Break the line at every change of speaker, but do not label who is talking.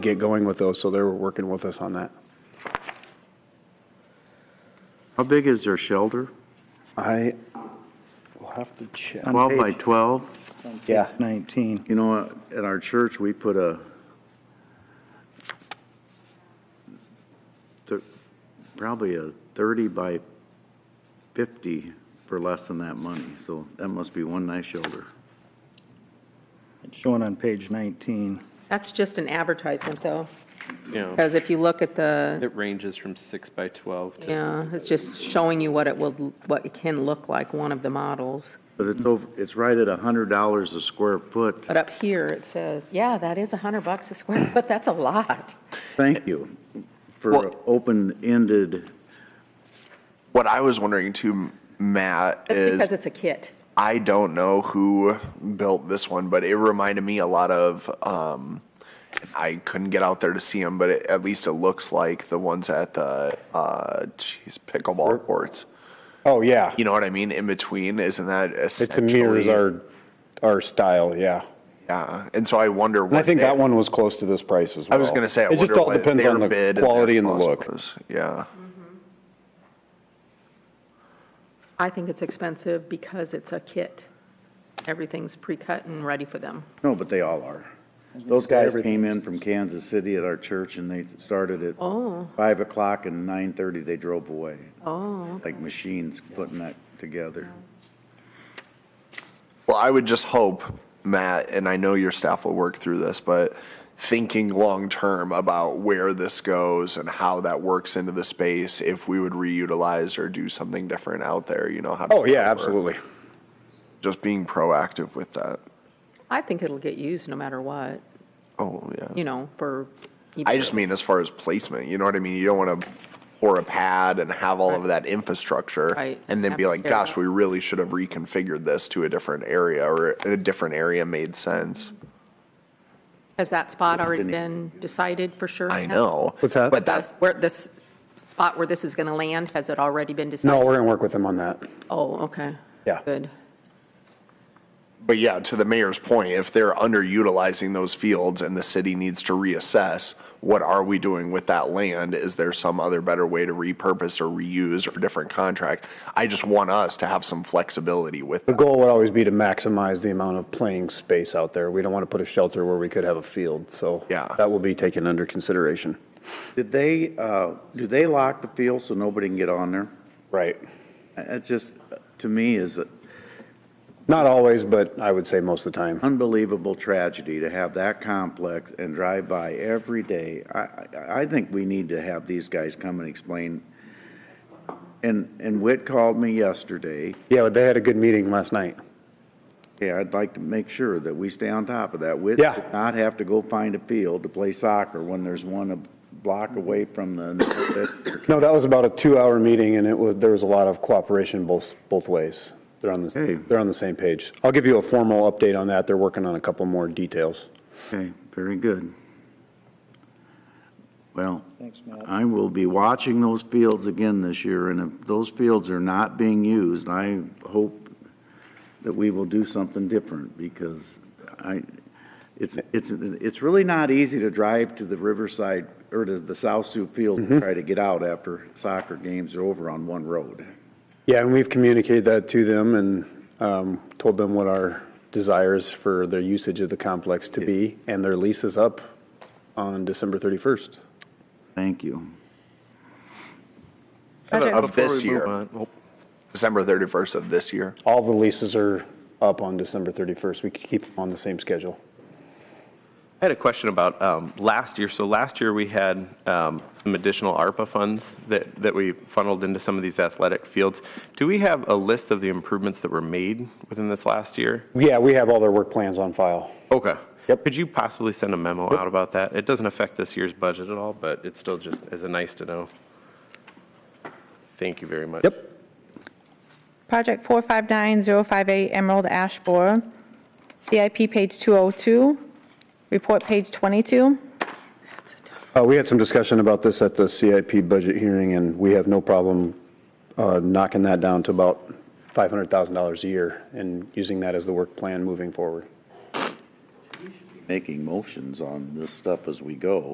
get going with those, so they were working with us on that.
How big is their shelter?
I will have to check.
Um,
12 by 12?
Yeah.
19.
You know, at our church, we put a, thir- probably a 30 by 50 for less than that money, so that must be one nice shelter.
It's shown on page 19.
That's just an advertisement, though,
Yeah,
because if you look at the,
it ranges from six by 12 to.
yeah, it's just showing you what it will, what it can look like, one of the models.
But it's over, it's right at $100 a square foot.
But up here, it says, yeah, that is a hundred bucks a square foot, that's a lot.
Thank you for an open-ended,
What I was wondering too, Matt,
That's because
is
it's a kit.
I don't know who built this one, but it reminded me a lot of. Um, I couldn't get out there to see them, but it, at least it looks like the ones at the uh, geez, pickleball courts.
Oh, yeah.
You know what I mean? In between, isn't that essentially?
It's a mirrors our, our style, yeah.
Yeah, and so I wonder. What
And I think
they-
that one was close to this price as well.
I was going to say. I
It just
wonder
all
what
depends
their
on the
bid
quality
their
and the
cost
look.
was. Yeah.
I think it's expensive because it's a kit. Everything's pre-cut and ready for them.
no, but they all are. Those guys came in from Kansas City at our church, and they started at
Oh,
5 o'clock, and 9:30 they drove away,
oh,
like machines putting that together.
Well, I would just hope, Matt, and I know your staff will work through this, but thinking long term about where this goes and how that works into the space, if we would reutilize or do something different out there, you know how. does
Oh, yeah,
that work?
absolutely.
Just being proactive with that.
I think it'll get used no matter what,
Oh yeah.
you know, for.
I just mean as far as placement, you know what I mean? You don't want to pour a pad and have all of that infrastructure
Right.
and then be like,
Absolutely.
gosh, we really should have reconfigured this to a different area or a different area made sense.
Has that spot already been decided for sure?
I know.
What's that?
But
The-
that's
Where this, spot where this is going to land, has it already been
No,
decided?
we're going to work with them on that.
Oh, okay.
Yeah.
Good.
But yeah, to the mayor's point, if they're underutilizing those fields and the city needs to reassess, what are we doing with that land? Is there some other better way to repurpose or reuse or different contract? I just want us to have some flexibility with
The goal would always be to maximize the amount of playing space out there. We don't want to put a shelter where we could have a field, so.
Yeah.
That will be taken under consideration.
Did they, uh, do they lock the field so nobody can get on there?
Right.
That's just, to me, is an
Not always, but I would say most of the time.
unbelievable tragedy to have that complex and drive by every day. I, I, I think we need to have these guys come and explain. And, and Whit called me yesterday.
Yeah, they had a good meeting last night.
Yeah, I'd like to make sure that we stay on top of that. Whit
Yeah.
did not have to go find a field to play soccer when there's one a block away from the.
No, that was about a two-hour meeting, and it was, there was a lot of cooperation both, both ways. They're on
Hey.
the, they're on the same page. I'll give you a formal update on that. They're working on a couple more details.
Okay, very good. Well, I will be watching those fields again this year, and if those fields are not being used, I hope that we will do something different, because I, it's, it's, it's really not easy to drive to the Riverside, or to the South Sioux Field and try to get out after soccer games are over on one road.
Yeah, and we've communicated that to them and um, told them what our desires for their usage of the complex to be, and their lease is up on December 31st.
Thank you.
Okay.
of
Before
this
we move
year, December 31st of this year.
All the leases are up on December 31st. We keep them on the same schedule.
I had a question about um, last year. So last year, we had um, some additional ARPA funds that, that we funneled into some of these athletic fields. Do we have a list of the improvements that were made within this last year?
Yeah, we have all their work plans on file.
Okay.
Yep.
Could you possibly send a memo out about that? It doesn't affect this year's budget at all, but it's still just, is a nice to know. Thank you very much.
Yep.
Project 459058 Emerald Ash Borer, CIP page 202, report page 22.
Uh, We had some discussion about this at the CIP budget hearing, and we have no problem uh, knocking that down to about $500,000 a year and using that as the work plan moving forward.
Making motions on this stuff as we go.